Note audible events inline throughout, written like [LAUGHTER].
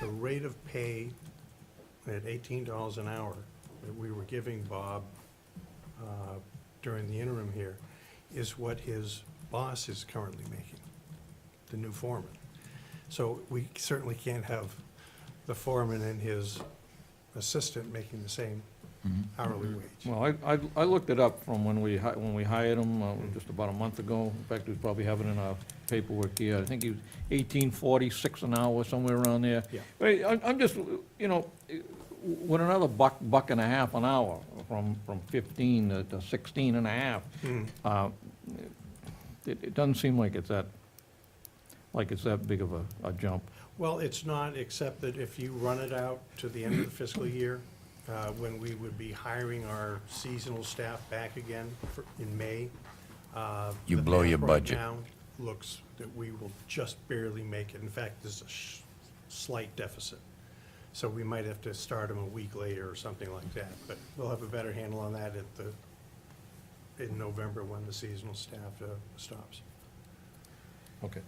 the rate of pay at eighteen dollars an hour that we were giving Bob uh, during the interim here is what his boss is currently making, the new foreman. So we certainly can't have the foreman and his assistant making the same hourly wage. Well, I, I, I looked it up from when we, hi- when we hired him, uh, just about a month ago. In fact, we probably have it in our paperwork here. I think he was eighteen forty-six an hour, somewhere around there. Yeah. But I, I'm just, you know, with another buck, buck and a half an hour, from, from fifteen to- to sixteen and a half, Mm. uh, it, it doesn't seem like it's that, like it's that big of a, a jump. Well, it's not, except that if you run it out to the end of the fiscal year, uh, when we would be hiring our seasonal staff back again for- in May. uh, You the blow your math right budget. now Looks that we will just barely make it. In fact, there's a sh- slight deficit. So we might have to start them a week later or something like that. But we'll have a better handle on that at the, in November when the seasonal staff uh, stops. Okay.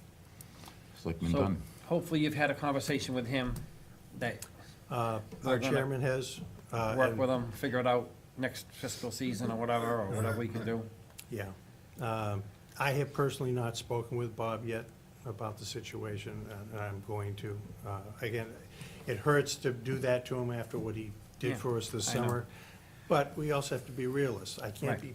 Selectman So Dunn. hopefully you've had a conversation with him that Uh, Our We're gonna chairman has. uh, work and- with him, figure it out next fiscal season or whatever, or whatever we can do. Yeah. Um, I have personally not spoken with Bob yet about the situation, and I'm going to. Uh, Again, it hurts to do that to him after what he did Yeah, for us this I know. summer, but we also have to be realists. I can't Right. be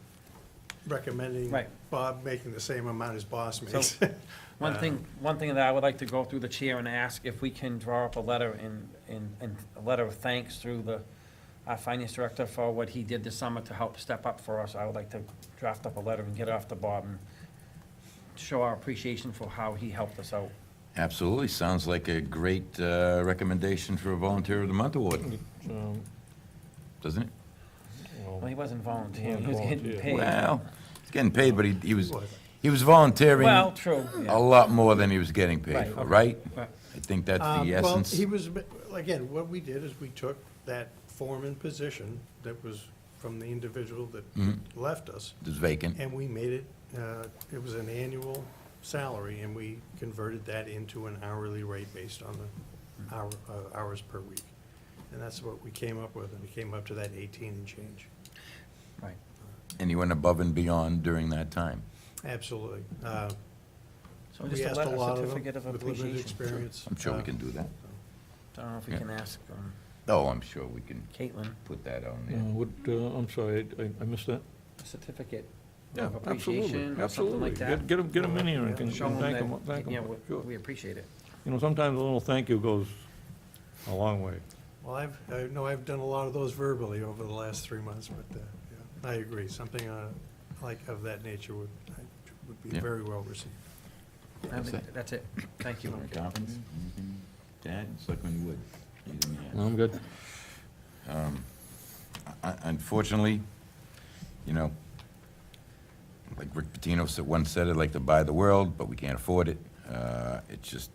recommending Right. Bob making the same amount his boss So, [LAUGHS] makes. One Uh, thing, one thing that I would like to go through the chair and ask if we can draw up a letter and, and, and a letter of thanks through the, our finance director for what he did this summer to help step up for us. I would like to draft up a letter and get it off to Bob and show our appreciation for how he helped us out. Absolutely, sounds like a great uh, recommendation for a Volunteer of the Month award, Um, doesn't it? well, Well, he wasn't volunteering, he was getting Volunteer. paid. Well, he's getting paid, but he he was, What? he was volunteering Well, a true, yeah. lot more than he was getting paid Right, for, okay. right? But- I think that's Um, the Well, essence. he was, again, what we did is we took that foreman position that was from the individual that Mm. left us, It's Mm-hmm. vacant. And we made it, uh, it was an annual salary, and we converted that into an hourly rate based on the hour, uh, hours per week. And that's what we came up with, and we came up to that eighteen and change. Right. And he went above and beyond during that time. Absolutely. Uh, So We just a asked a letter, lot of certificate them of with limited appreciation. experience. I'm sure we Uh, can do that. I don't know if we Yeah. can ask um, Oh, I'm sure we can Caitlin put that on uh, there. Would, uh, I'm sorry, I- I- I missed that. a certificate Yeah, of absolutely, appreciation or something absolutely. like that. Get, get them, in here and can, Show and thank them, them thank that, yeah, them, we- sure. we appreciate it. You know, sometimes a little thank you goes a long way. Well, I've, I know I've done a lot of those verbally over the last three months, but, uh, yeah, I agree. Something, uh, like of that nature would, would be Yeah. very well received. I That's think it. That's it, thank you. Conference? Anything to add? Mm-hmm. Selectman Wood? anything to add? I'm good. Un- Um, Unfortunately, you know, like Rick Pitino said, once said, I'd like to buy the world, but we can't afford it. Uh, It's just,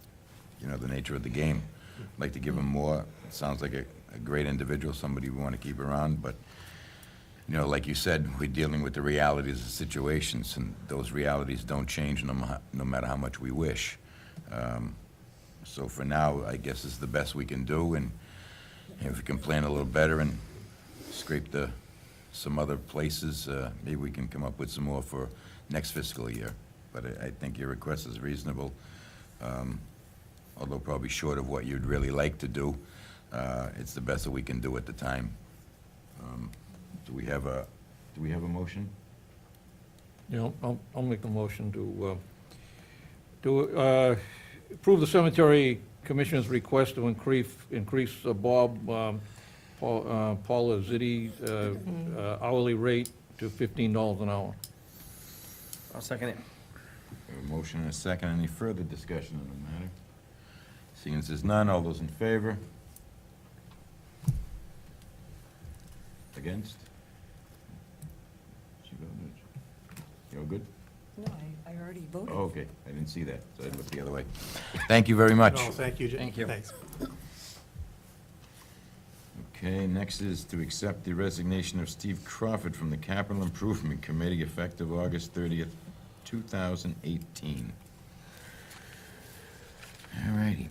you know, the nature of the game. I'd Like to give him more. Sounds like a, a great individual, somebody we want to keep around, but, you know, like you said, we're dealing with the realities of situations, and those realities don't change no, mu- no matter how much we wish. Um, So for now, I guess it's the best we can do, and you know, if we can plan a little better and scrape the, some other places, uh, maybe we can come up with some more for next fiscal year. But I, I think your request is reasonable, um, although probably short of what you'd really like to do. Uh, It's the best that we can do at the time. Um, Do we have a, do we have a motion? You know, I'll, I'll make the motion to, uh, to uh, approve the cemetery commissioner's request to increase, increase uh, Bob, um, Paul uh, Paula Zitti uh, uh, hourly rate to fifteen dollars an hour. I'll second it. A motion and a second. Any further discussion on the matter? Seeing as there's none, all those in favor? Against? You're good? No, I, I already voted. Oh, okay, I didn't see that, so I looked the other way. Thank you very much. No, oh, thank you. Jim. Thank you. Thanks. Okay, next is to accept the resignation of Steve Crawford from the Capital Improvement Committee effective August 30th, 2018. All righty.